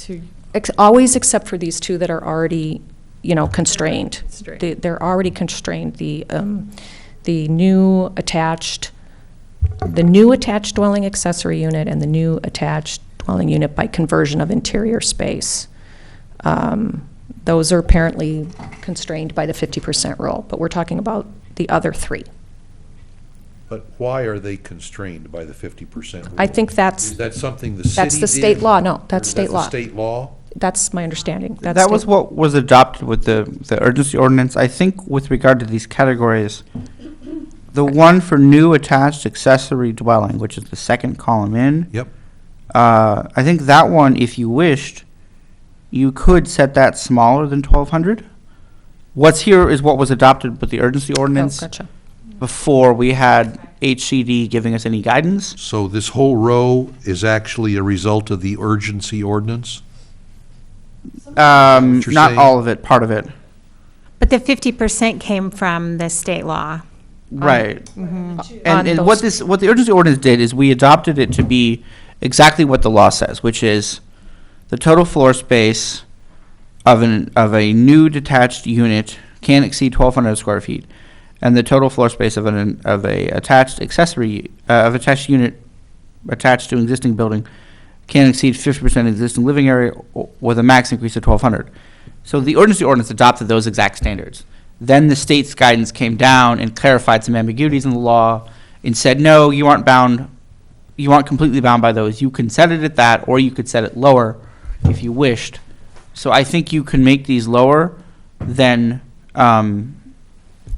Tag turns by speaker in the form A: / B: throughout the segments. A: two.
B: Ex- Always except for these two that are already, you know, constrained.
A: Constrained.
B: They- They're already constrained, the, um, the new attached, the new attached dwelling accessory unit and the new attached dwelling unit by conversion of interior space. Um, Those are apparently constrained by the 50% rule, but we're talking about the other three.
C: But why are they constrained by the fifty percent rule?
B: I think that's,
C: Is that something the
B: That's
C: city
B: the state
C: did?
B: law. No, that's
C: Or is
B: state
C: that the
B: law.
C: state law?
B: that's my understanding. That's
D: That was
B: the-
D: what was adopted with the, the urgency ordinance. I think with regard to these categories, the one for new attached accessory dwelling, which is the second column in,
C: Yep.
D: uh, I think that one, if you wished, you could set that smaller than twelve hundred. What's here is what was adopted with the urgency
B: Oh,
D: ordinance
B: gotcha.
D: before we had HCD giving us any guidance.
C: So this whole row is actually a result of the urgency ordinance?
D: Um,
C: What you're
D: not
C: saying-
D: all of it, part of it.
E: But the fifty percent came from the state law.
D: Right.
B: On
D: And, and what
B: those-
D: this, what the urgency ordinance did is we adopted it to be exactly what the law says, which is the total floor space of an, of a new detached unit can't exceed twelve hundred square feet. And the total floor space of an, of a attached accessory, uh, of attached unit attached to an existing building can't exceed fifty percent existing living area o- with a max increase of twelve hundred. So the urgency ordinance adopted those exact standards. Then the state's guidance came down and clarified some ambiguities in the law and said, no, you aren't bound, you aren't completely bound by those. You can set it at that, or you could set it lower if you wished. So I think you can make these lower than, um,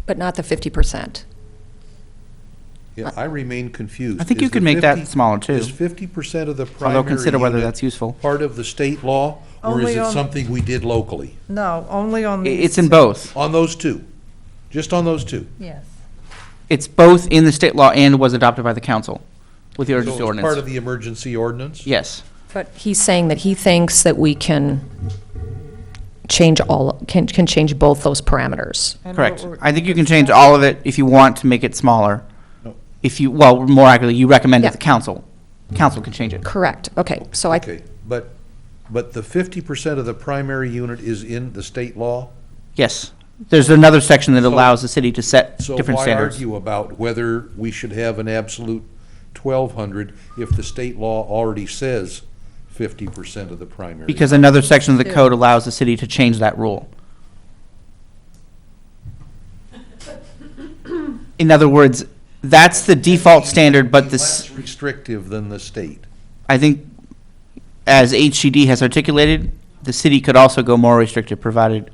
B: But not the 50%.
C: Yeah, I remain confused.
D: I think you
C: Is the
D: could make that
C: 50
D: smaller, too.
C: Is fifty percent of the primary
D: although consider whether
C: unit
D: that's useful.
C: part of the state law? Or is
A: Only
C: it
A: on-
C: something we did locally?
A: No, only on
D: I-
A: these.
D: It's in
A: two.
D: both.
C: On those two? Just on those two?
A: Yes.
D: It's both in the state law and was adopted by the council with the urgency
C: So it's part of
D: ordinance.
C: the emergency ordinance?
D: Yes.
B: But he's saying that he thinks that we can change all, can, can change both those parameters.
A: And
D: Correct.
A: what we're-
D: I think you can change all of it if you want to make it smaller.
C: No.
D: If you, well, more accurately, you recommend
B: Yeah.
D: that the council, council can change it.
B: Correct, okay, so I,
C: Okay, but, but the fifty percent of the primary unit is in the state law?
D: Yes. There's another section that
C: So-
D: allows the city to set
C: So
D: different
C: why
D: standards.
C: argue about whether we should have an absolute twelve hundred if the state law already says fifty percent of the primary?
D: Because another section of the code allows the city to change that rule. In other words, that's the default standard, but
C: Less
D: this,
C: restrictive than the state.
D: I think, as HCD has articulated, the city could also go more restrictive, provided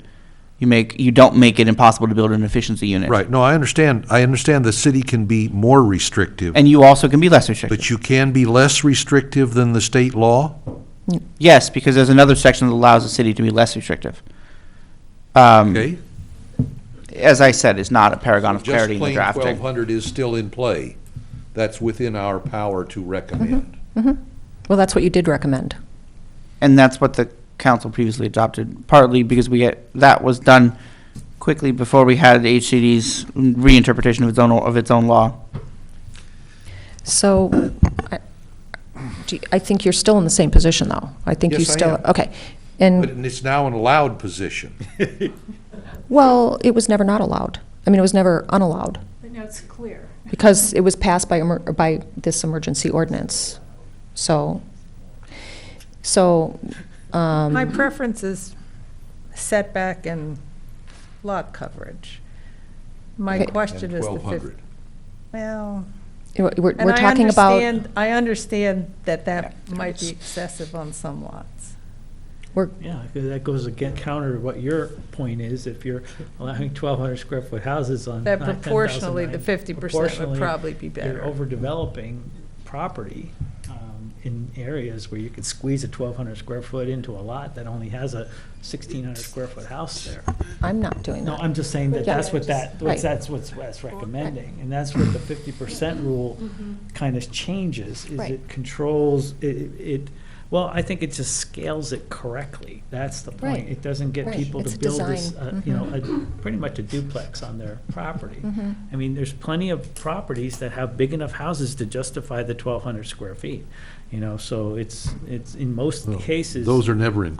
D: you make, you don't make it impossible to build an efficiency unit.
C: Right, no, I understand, I understand the city can be more restrictive,
D: And you also can be less restrictive.
C: but you can be less restrictive than the state law?
D: Yes, because there's another section that allows the city to be less restrictive. Um,
C: Okay?
D: As I said, is not a paragon of clarity in the
C: Just plain twelve
D: drafting.
C: hundred is still in play. That's within our power to recommend.
B: well, that's what you did recommend.
D: And that's what the council previously adopted, partly because we, had- that was done quickly before we had HCD's reinterpretation of its own, of its own law.
B: So, I, do you- I think you're still in the same position, though. I think you
C: Yes, I
B: still,
C: am.
B: okay.
C: But
A: Mm-hmm.
B: And,
C: it's now an allowed position.
B: well, it was never not allowed. I mean, it was never unallowed,
F: But now it's clear.
B: because it was passed by, emer- by this emergency ordinance. So, so, um.
A: My preference is setback and lot coverage. My
B: Okay.
A: question is the
C: Twelve
A: fif-
C: hundred.
A: well,
B: We're, we're
A: and
B: we're
A: I
B: talking about,
A: understand- I understand that that might be excessive on some lots.
B: we're,
G: Yeah, 'cause that goes again counter to what your point is, if you're allowing twelve hundred square foot houses on.
A: That
G: nine- 10,000
A: proportionally, the
G: nine-
A: 50% would
G: proportionally,
A: probably be better.
G: You're overdeveloping property um, in areas where you could squeeze a twelve hundred square foot into a lot that only has a sixteen hundred square foot house there.
B: I'm not doing
G: No,
B: that.
G: I'm just saying that
B: Yeah.
G: that's what that,
B: Right.
G: what's- that's what's that's recommending, and that's what the fifty percent rule kind of changes, is
B: Mm-hmm. Right.
G: it controls, it, it- it Well, I think it just scales it correctly. That's the point.
B: Right.
G: It doesn't get
B: Right.
G: people
B: It's
G: to
B: a
G: build this,
B: design. Mm-hmm.
G: uh, you know, a- pretty much a duplex on their property.
B: Mhm.
G: I mean, there's plenty of properties that have big enough houses to justify the 1,200 square feet, you know, so it's, it's, in most cases.
C: Those are never in